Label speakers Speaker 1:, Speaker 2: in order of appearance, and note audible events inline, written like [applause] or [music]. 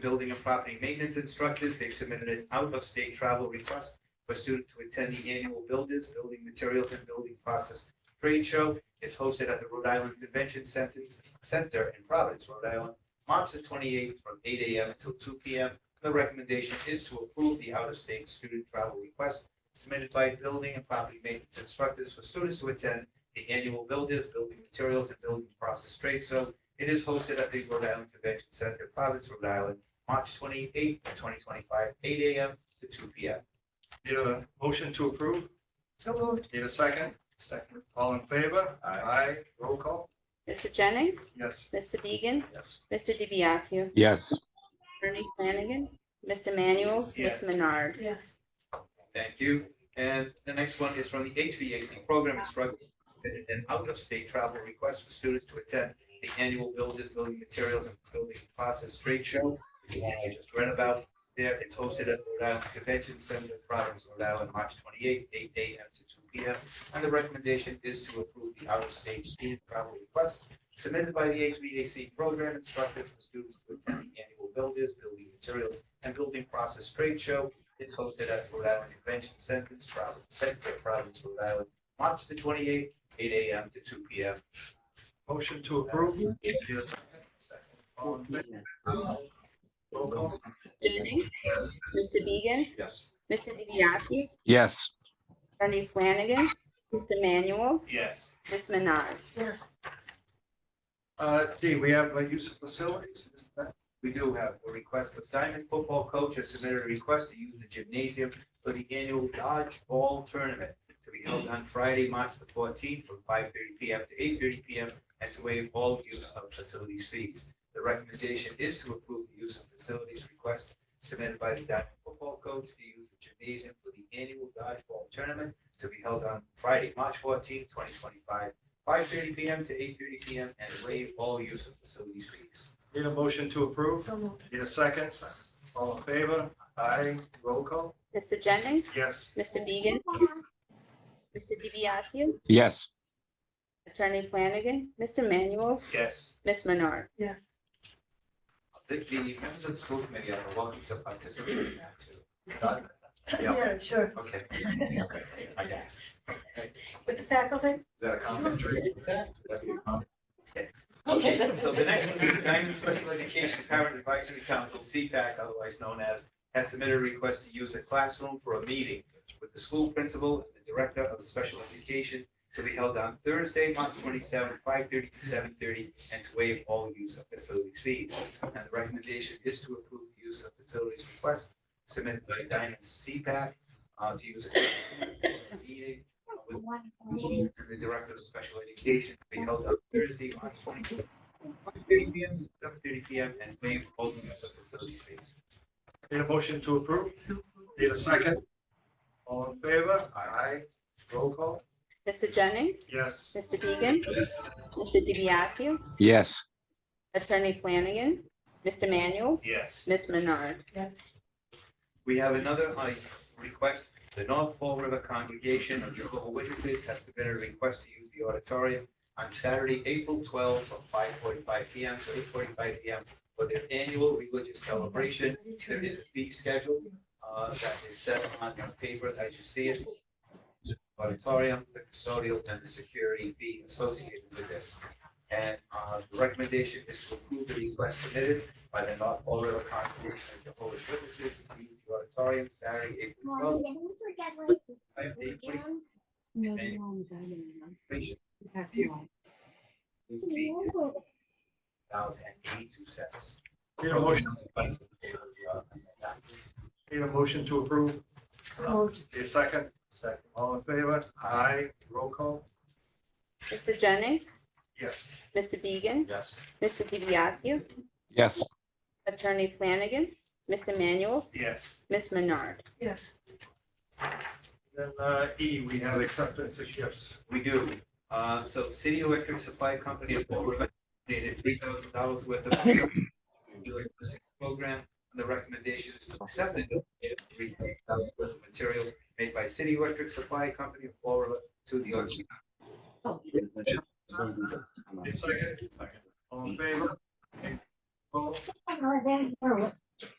Speaker 1: building and property maintenance instructors. They've submitted an out-of-state travel request for students to attend the annual Builders, Building Materials and Building Process Trade Show. It's hosted at the Rhode Island Convention Center Center in Providence, Rhode Island, March the twenty-eighth from eight AM till two PM. The recommendation is to approve the out-of-state student travel request submitted by building and property maintenance instructors for students to attend the annual Builders, Building Materials and Building Process Trade Show. It is hosted at the Rhode Island Convention Center, Providence, Rhode Island, March twenty-eighth, twenty twenty-five, eight AM to two PM.
Speaker 2: Need a motion to approve?
Speaker 1: So moved.
Speaker 2: Need a second? Second. All in favor?
Speaker 1: Aye.
Speaker 2: Roll call?
Speaker 3: Mr. Jennings,
Speaker 2: Yes.
Speaker 3: Mr. Beegan,
Speaker 2: Yes.
Speaker 3: Mr. DiBiaseu,
Speaker 4: yes,
Speaker 3: Attorney Flanagan, Mr. Manuel,
Speaker 1: Yes.
Speaker 3: Ms. Menard.
Speaker 5: Yes.
Speaker 1: Thank you. And the next one is from the HVAC program instructor, an out-of-state travel request for students to attend the annual Builders, Building Materials and Building Process Trade Show. The one I just read about there, it's hosted at Rhode Island Convention Center, Providence, Rhode Island, March twenty-eighth, eight AM to two PM. And the recommendation is to approve the out-of-state student travel request submitted by the HVAC program instructor for students to attend the annual Builders, Building Materials and Building Process Trade Show it's hosted at Rhode Island Convention Center, Providence, Center, Providence, Rhode Island, March the twenty-eighth, eight AM to two PM.
Speaker 2: Motion to approve? Need a second? Second. All in favor? Roll call?
Speaker 3: Jennings,
Speaker 2: Yes.
Speaker 3: Mr. Beegan,
Speaker 2: Yes.
Speaker 3: Mr. DiBiaseu,
Speaker 4: yes,
Speaker 3: Attorney Flanagan, Mr. Manuel,
Speaker 2: Yes.
Speaker 3: Ms. Menard.
Speaker 5: Yes.
Speaker 2: Uh, D, we have uh, use of facilities? Is that-
Speaker 1: We do have a request of Diamond Football Coach has submitted a request to use the gymnasium for the annual dodgeball tournament to be held on Friday, March the fourteenth, from five thirty P M to eight thirty P M, and to waive all use of facilities fees. The recommendation is to approve the use of facilities request submitted by the Diamond Football Coach to use the gymnasium for the annual dodgeball tournament to be held on Friday, March fourteenth, twenty twenty-five, five thirty P M to eight thirty P M, and waive all use of facilities fees.
Speaker 2: Need a motion to approve?
Speaker 5: So moved.
Speaker 2: Need a second? All in favor? Aye. Roll call?
Speaker 3: Mr. Jennings,
Speaker 2: Yes.
Speaker 3: Mr. Beegan, Mr. DiBiaseu,
Speaker 4: yes,
Speaker 3: Attorney Flanagan, Mr. Manuel,
Speaker 2: Yes.
Speaker 3: Ms. Menard.
Speaker 5: Yes.
Speaker 1: The, the members of the school committee are welcome to participate in that too. Yeah,
Speaker 5: Yeah, sure.
Speaker 1: okay. I guess.
Speaker 5: With the faculty?
Speaker 1: Is that a commentary?
Speaker 5: Okay.
Speaker 1: So the next one is the Diamond Special Education Parent Advisory Council, CPAC, otherwise known as, has submitted a request to use a classroom for a meeting with the school principal and the director of special education to be held on Thursday, March twenty-seventh, five thirty to seven thirty, and to waive all use of facility fees. And the recommendation is to approve the use of facilities request submitted by Diamond CPAC uh, to use a classroom for a meeting with and the Director of Special Education will be held on Thursday, March twenty-fifth, one thirty P M, seven thirty P M, and waive all use of facility fees.
Speaker 2: Need a motion to approve? Need a second? All in favor? Aye. Roll call?
Speaker 3: Mr. Jennings,
Speaker 2: Yes.
Speaker 3: Mr. Beegan, Mr. DiBiaseu,
Speaker 4: yes,
Speaker 3: Attorney Flanagan, Mr. Manuel,
Speaker 2: Yes.
Speaker 3: Ms. Menard.
Speaker 5: Yes.
Speaker 1: We have another uh, request, the North Fall River Congregation of Jehovah's Witnesses has submitted a request to use the auditorium on Saturday, April twelfth, from five forty-five P M to eight forty-five P M for their annual religious celebration There is a fee schedule uh, that is set on your paper as you see it. Auditorium, the custodial, and the security fee associated with this. And uh, the recommendation is to approve the request submitted by the North Fall River Congregation of Jehovah's Witnesses to use the auditorium Saturday, April
Speaker 6: Mom,
Speaker 1: twelfth,
Speaker 6: did we forget what
Speaker 1: five
Speaker 6: we
Speaker 1: eight twenty.
Speaker 6: found?
Speaker 1: Fee is thousand eighty-two cents.
Speaker 2: Need a motion, need a motion to approve?
Speaker 5: Moved.
Speaker 2: Need a second? Second. All in favor? Aye. Roll call?
Speaker 3: Mr. Jennings,
Speaker 2: Yes.
Speaker 3: Mr. Beegan,
Speaker 2: Yes.
Speaker 3: Mr. DiBiaseu,
Speaker 4: yes,
Speaker 3: Attorney Flanagan, Mr. Manuel,
Speaker 2: Yes.
Speaker 3: Ms. Menard.
Speaker 5: Yes.
Speaker 2: Then, uh, E, we have acceptance of gifts.
Speaker 1: We do. Uh, so City Electric Supply Company of Fall River donated three thousand dollars worth of [coughs] electricity program. And the recommendation is to accept the donation of three thousand dollars worth of material made by City Electric Supply Company of Fall River to the organization.
Speaker 2: Need a second? Second. All in favor? Okay. Roll.
Speaker 6: Oh, there's,